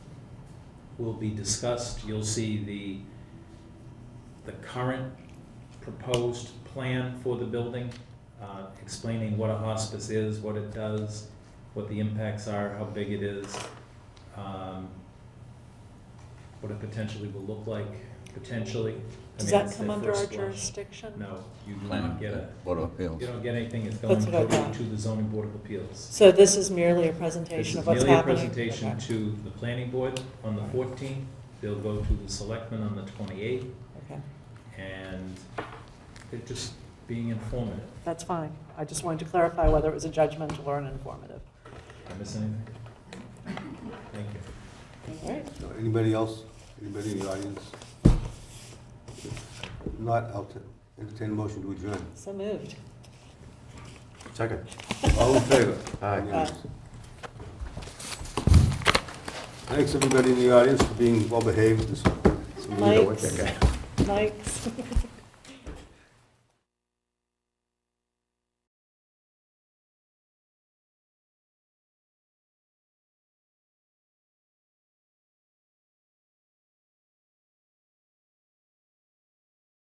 will be discussed. You'll see the, the current proposed plan for the building, uh, explaining what a hospice is, what it does, what the impacts are, how big it is, um, what it potentially will look like, potentially. I Does mean, that it's come their under our first blush. jurisdiction? No, you do Plan not get a, Board of Appeals. you don't get anything, it's going That's what I to thought. to the zoning board of appeals. So this is merely a This presentation is of what's merely a happening? presentation Okay, to the planning board on the fourteenth, they'll go to the selectmen on the twenty-eighth, Okay, and they're just being informative. that's fine. I just wanted to clarify whether it was a judgmental or an informative. Did I miss anything? Thank you. All right, So Anybody else? Anybody in the audience? If Not, I'll t- entertain a motion to adjourn. so moved. Second. All in favor? Aye. Unanimous. Thanks, everybody in the audience, for being well-behaved this You know what, Mike's- that guy. Mike's.